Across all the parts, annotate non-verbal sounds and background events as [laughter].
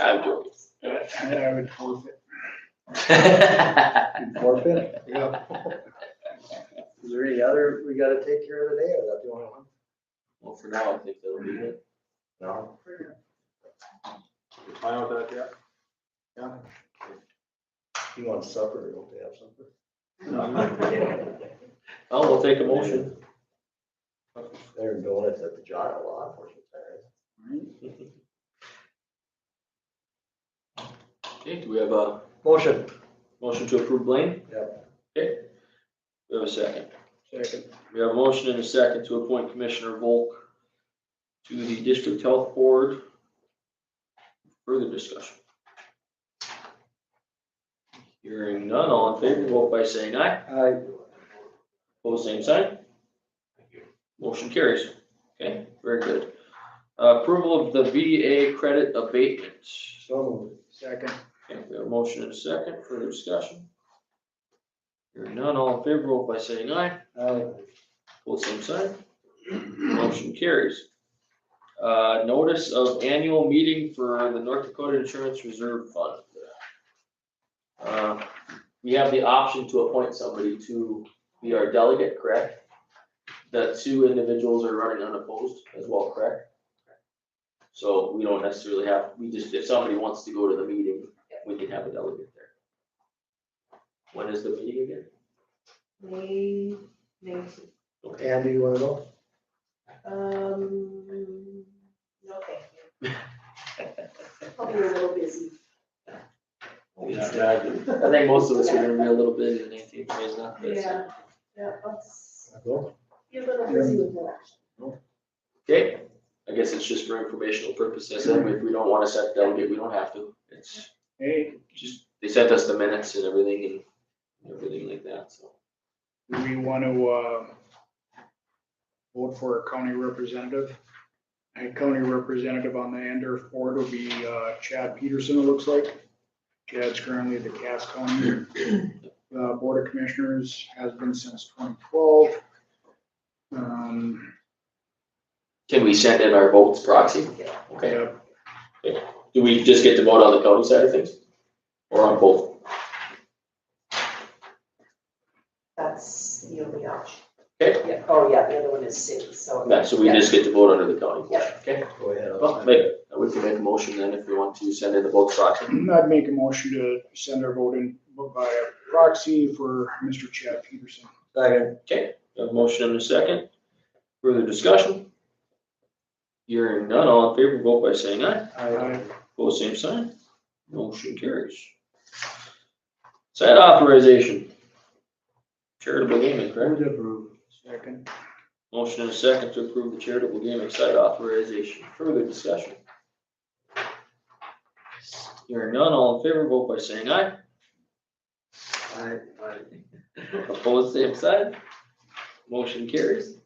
I do. And I would forfeit. Forfeit? Yeah. Is there any other we gotta take care of today, or that the only one? Well, for now, I think that'll be it. No. Fine with that, yeah. You want supper, don't they have supper? [laughs] Oh, we'll take a motion. They're doing it at the John Law Enforcement Center. Okay, do we have a Motion. motion to approve Blaine? Yep. Okay. We have a second. Second. We have a motion and a second to appoint Commissioner Volk to the District Health Board. Further discussion. Hearing none, all in favor, vote by saying aye. Aye. Pose same sign. Motion carries. Okay, very good. Uh, Approval of the VDA credit abatements. So Second. Okay, we have a motion and a second, further discussion? Hearing none, all in favor, vote by saying aye, moved. Aye. pull same sign, motion carries. Uh, notice of annual meeting for the North Dakota Insurance Reserve Fund. Uh, we have the option to appoint somebody to be our delegate, correct? The two individuals are running unopposed as well, correct? So we don't necessarily have, we just, if somebody wants to go to the meeting, we can have a delegate there. When is the meeting again? May, nineteenth. Okay. Andy, you wanna go? um, [laughs] no, thank you. Hope you're a little busy. I think most of us are gonna be a little busy the nineteenth, is not this. Yeah, yeah, let's I'll go. be a little busy with election. Okay, I guess it's just for informational purposes, and if we don't wanna set delegate, we don't have to, it's Hey, just, they sent us the minutes and everything and everything like that, so. do we want to, uh, vote for a county representative? A county representative on the Andorf board will be uh, Chad Peterson, it looks like. Chad's currently the Cass County, uh, Board of Commissioners, has been since twenty twelve. Um, Can we send in our votes proxy? Yeah. Okay, yeah, do we just get to vote on the county side of things? Or on both? That's the only option. Okay. Yeah, oh, yeah, the other one is city, so. Yeah, so we just get to vote under the county. Yeah. Okay, Go ahead. I'll well, sign make, it. we can make a motion then if we want to send in the votes proxy. I'd make a motion to send our vote in by proxy for Mr. Chad Peterson. Second. We have a motion and a second. Further discussion? Hearing none, all in favor, vote by saying aye. Aye. Pose same sign. Motion carries. Site authorization. Charitable gaming, correct? Second. Motion and a second to approve the charitable gaming site authorization. Further discussion? Hearing none, all in favor, vote by saying aye. Aye. Opposed, same sign. Motion carries.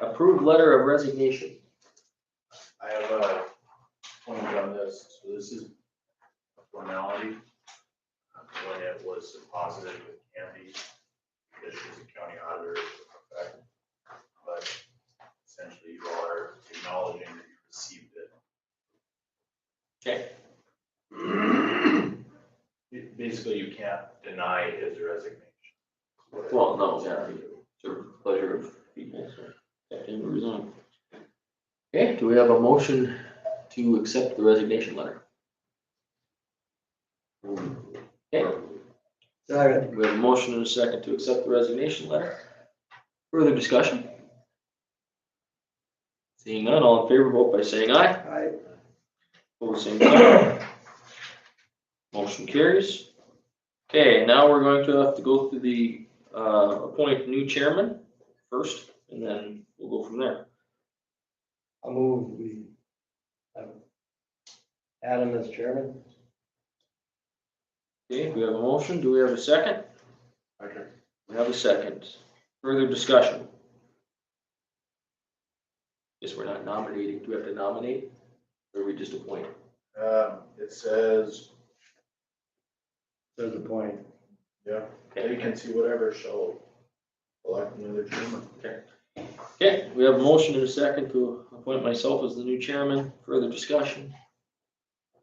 Approved letter of resignation. I have a point on this, so this is a formality. Uh, When it was deposited with Candy, this is the county auditor, effect, but essentially you all are acknowledging that you received it. Okay. It- Basically, you can't deny his resignation. Well, no, yeah, to pleasure of people, so that can resign. Okay, do we have a motion to accept the resignation letter? Okay, Second. we have a motion and a second to accept the resignation letter. Further discussion? Seeing none, all in favor, vote by saying aye. Aye. Pose same sign. Motion carries. Okay, now we're going to have to go through the, uh, appoint new chairman first, and then we'll go from there. I move we have Adam as chairman. Okay, we have a motion. Do we have a second? Okay. We have a second. Further discussion? Guess we're not nominating. Do we have to nominate? Or we just appoint? Um, it says, There's a point. yeah, Okay. vacancy, whatever, shall elect another chairman. Okay, we have a motion and a second to appoint myself as the new chairman. Further discussion?